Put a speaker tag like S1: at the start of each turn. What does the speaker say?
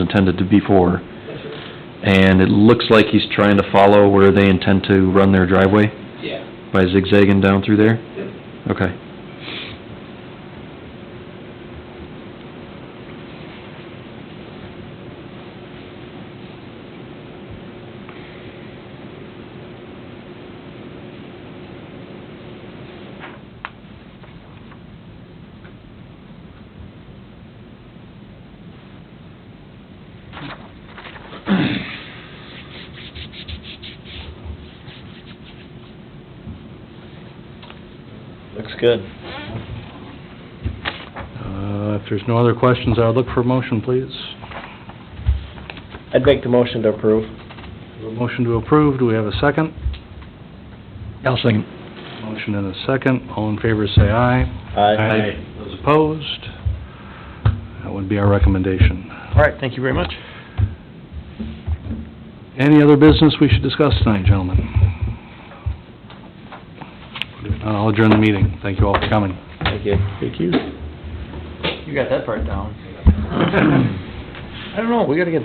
S1: intended to be for. And it looks like he's trying to follow where they intend to run their driveway
S2: Yeah.
S1: by zigzagging down through there?
S2: Yep.
S1: Okay.
S3: Looks good.
S4: Uh, If there's no other questions, I would look for a motion, please.
S3: I'd make the motion to approve.
S4: A motion to approve, do we have a second?
S1: I'll second.
S4: Motion and a second, all in favor say aye.
S3: Aye.
S4: Those opposed? That would be our recommendation.
S3: All right, thank you very much.
S4: Any other business we should discuss tonight, gentlemen? If not, I'll adjourn the meeting, thank you all for coming.
S3: Thank you.
S4: Thank you.
S3: You got that part down. I don't know, we gotta get